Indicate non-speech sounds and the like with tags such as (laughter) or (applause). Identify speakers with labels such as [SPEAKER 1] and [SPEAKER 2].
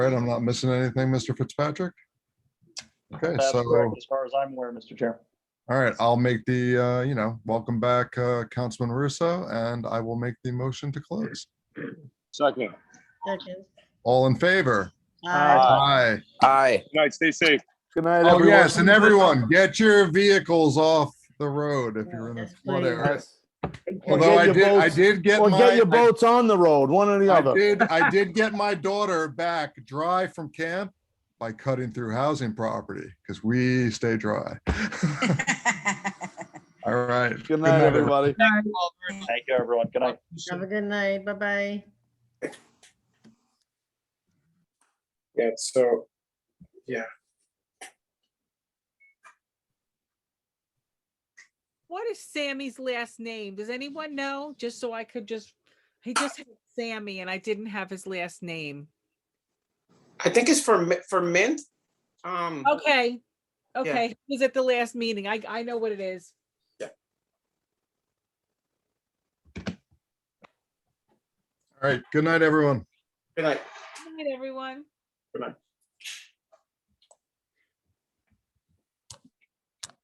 [SPEAKER 1] right, I'm not missing anything, Mr. Fitzpatrick? Okay,
[SPEAKER 2] That's
[SPEAKER 1] so,
[SPEAKER 2] correct,
[SPEAKER 1] all
[SPEAKER 2] as far as I'm aware, Mr. Chair.
[SPEAKER 1] right, I'll make the, uh, you know, welcome back, uh, Councilman Russo, and I will make the motion to close.
[SPEAKER 3] Second.
[SPEAKER 4] Second.
[SPEAKER 1] All in favor? Aye.
[SPEAKER 4] Aye.
[SPEAKER 3] Aye.
[SPEAKER 5] Good night, stay safe.
[SPEAKER 3] Good night,
[SPEAKER 1] Oh,
[SPEAKER 3] everyone.
[SPEAKER 1] yes, and everyone, get your vehicles off the road if you're in a
[SPEAKER 4] Yes,
[SPEAKER 1] flood
[SPEAKER 4] please.
[SPEAKER 1] area.
[SPEAKER 3] Yes. Or
[SPEAKER 1] Although I
[SPEAKER 3] get
[SPEAKER 1] did,
[SPEAKER 3] your
[SPEAKER 1] I
[SPEAKER 3] boats,
[SPEAKER 1] did get
[SPEAKER 3] or
[SPEAKER 1] my.
[SPEAKER 3] get your
[SPEAKER 1] I-
[SPEAKER 3] boats on the road, one or the
[SPEAKER 1] I
[SPEAKER 3] other.
[SPEAKER 1] did,
[SPEAKER 3] (laughs)
[SPEAKER 1] I did get my daughter back dry from camp by cutting through housing property because we stay dry. (laughs) All right.
[SPEAKER 3] Good night, everybody.
[SPEAKER 2] Thank you, everyone. Good night.
[SPEAKER 4] Have a good night. Bye-bye.
[SPEAKER 6] Yeah, so, yeah.
[SPEAKER 7] What is Sammy's last name? Does anyone know? Just so I could just, he just had Sammy and I didn't have his last name.
[SPEAKER 6] I think it's for mi- for mint. Um,
[SPEAKER 7] Okay, okay, he was at the last meeting. I, I know what it is.
[SPEAKER 1] All right. Good night, everyone.
[SPEAKER 6] good night.
[SPEAKER 7] Good night, everyone.
[SPEAKER 6] Good night.